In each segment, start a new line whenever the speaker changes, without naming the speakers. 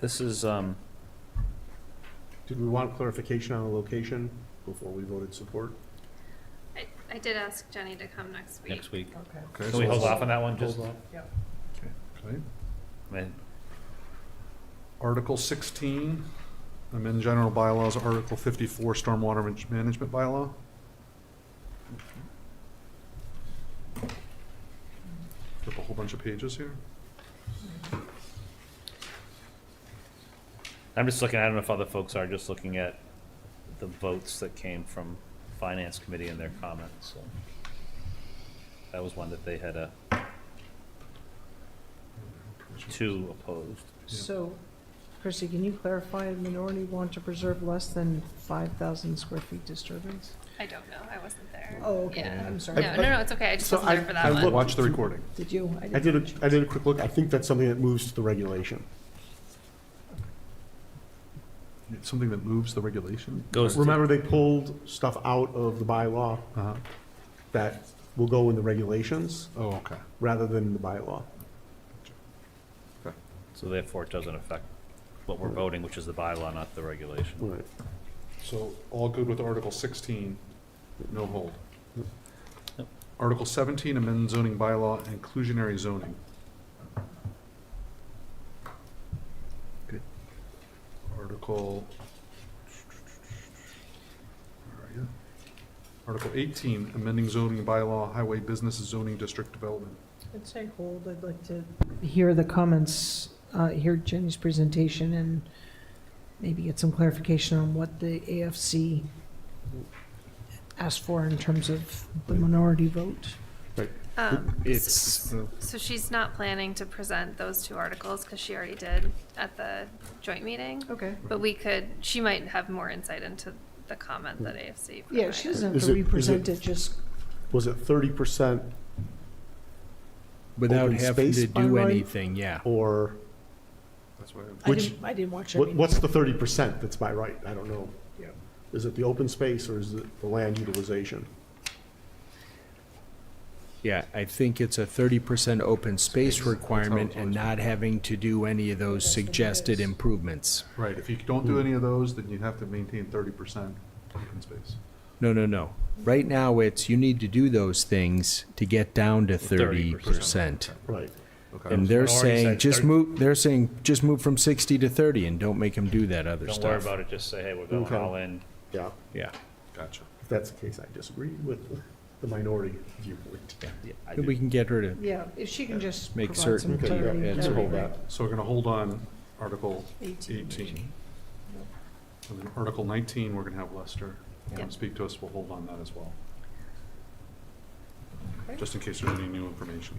This is, um,
Did we want clarification on the location before we voted support?
I, I did ask Jenny to come next week.
next week.
Okay.
Okay,
Can we
so
hold
let's-
off on that one, just,
hold off.
Yep.
Okay.
I mean,
Article sixteen, amend general bylaws, Article fifty-four, stormwater Manage- management bylaw. Flip a whole bunch of pages here.
I'm just looking, I don't know if other folks are, just looking at the votes that came from Finance Committee and their comments, so. That was one that they had a two opposed.
So, Chrissy, can you clarify, a minority want to preserve less than 5,000 square feet disturbance?
I don't know, I wasn't there.
Oh, okay,
Yeah.
I'm sorry.
No, no, no, it's okay, I just
So
wasn't there
I-
for
I
that one.
looked-
Watch the recording.
Did you?
I did
didn't-
a, I did a quick look. I think that's something that moves to the regulation.
It's something that moves the regulation?
Goes to-
Remember, they pulled stuff out of the bylaw
Uh-huh.
that will go in the regulations
Oh, okay.
rather than in the bylaw.
So therefore, it doesn't affect what we're voting, which is the bylaw, not the regulation.
Right.
So all good with Article sixteen, no hold. Article seventeen, amend zoning bylaw, inclusionary zoning. Good. Article. Where are you? Article eighteen, amending zoning bylaw, highway business zoning district development.
I'd say hold, I'd like to hear the comments, uh, hear Jenny's presentation, and maybe get some clarification on what the AFC asked for in terms of the minority vote.
Um,
It's.
uh,
So she's not planning to present those two articles, because she already did at the joint meeting,
Okay.
but we could, she might have more insight into the comment that AFC provided.
Yeah, she doesn't have
Is
to
it- is it-
represent it, just
Was it thirty percent
Without
Open
having
space
to
by
do
right?
anything, yeah.
or
That's why.
I
Which-
didn't, I didn't watch
what,
it.
what's the thirty percent that's by right? I don't know.
Yeah.
Is it the open space or is it the land utilization?
Yeah, I think it's a thirty percent open space
Space, that's how
requirement
it's always
and not having to do any of those
That's what it
suggested
is.
improvements.
Right, if you don't
Hmm.
do any of those, then you have to maintain thirty percent open space.
No, no, no. Right now, it's you need to do those things to get down to thirty
30%.
percent.
Right.
Okay.
And they're
Minority
saying,
said
just
30.
move, they're saying, just move from sixty to thirty and don't make them do that other
Don't worry
stuff.
about it, just say, hey, we're going
Okay.
all in.
Yeah.
Yeah.
Gotcha.
If that's the case, I disagree with the minority viewpoint.
I
We
do.
can get rid of,
Yeah, if she can just
Make
provide some
certain
Okay,
clarity.
yeah,
it's
let's
that'd be
hold
great.
that.
So we're gonna hold on Article
Eighteen.
eighteen. And then Article nineteen, we're gonna have Lester come
Yeah.
speak to us, we'll hold on that as well.
Okay.
Just in case there's any new information.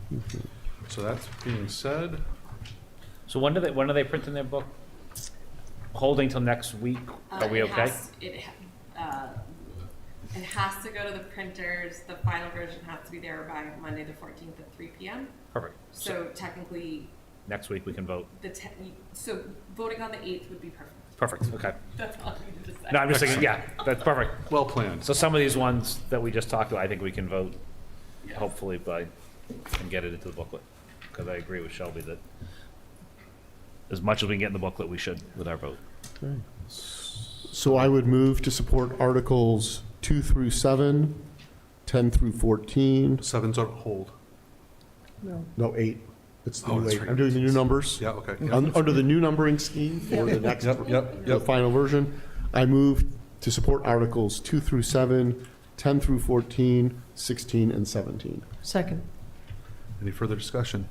So that's being said,
So when do they, when are they printing their book? Holding till next week?
Uh,
Are we
it
okay?
has- It, ha- uh, it has to go to the printers, the final version has to be there by Monday, the fourteenth at three PM.
Perfect. So
So technically,
next week we can vote.
the te- so voting on the eighth would be perfect.
Perfect, okay.
That's all I need to say.
No, I'm just thinking, yeah, that's perfect.
well planned.
So some of these ones that we just talked about, I think we can vote, hopefully by, and get it into the booklet. Because I agree with Shelby that as much as we can get in the booklet, we should with our vote.
So I would move to support Articles 2 through 7, 10 through 14,
Seven's on hold.
No,
no, 8. It's the
Oh,
new
that's
8.
right.
I'm doing the new numbers.
Yeah, okay. yeah.
Un- Under the new numbering scheme for the next,
Yep, yep,
the
yep.
final version, I move to support Articles 2 through 7, 10 through 14, 16, and 17.
second.
Any further discussion?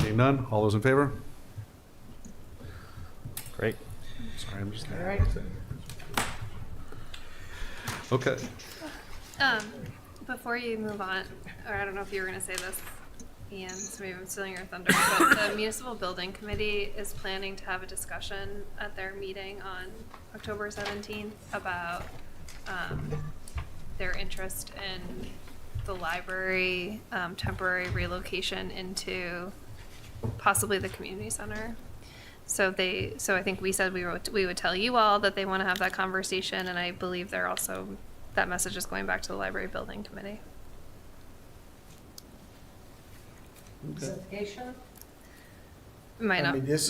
Seeing none, all those in favor?
Great.
Sorry, I'm just.
All right.
Okay,
Um, before you move on, or I don't know if you were gonna say this, Ian, so maybe I'm stealing your thunder, but the municipal building committee is planning to have a discussion at their meeting on October seventeenth about, um, their interest in the library, um, temporary relocation into possibly the community center. So they, so I think we said we wrote, we would tell you all that they want to have that conversation, and I believe they're also, that message is going back to the library building committee.
Clarification?
It Might
I
not
mean, this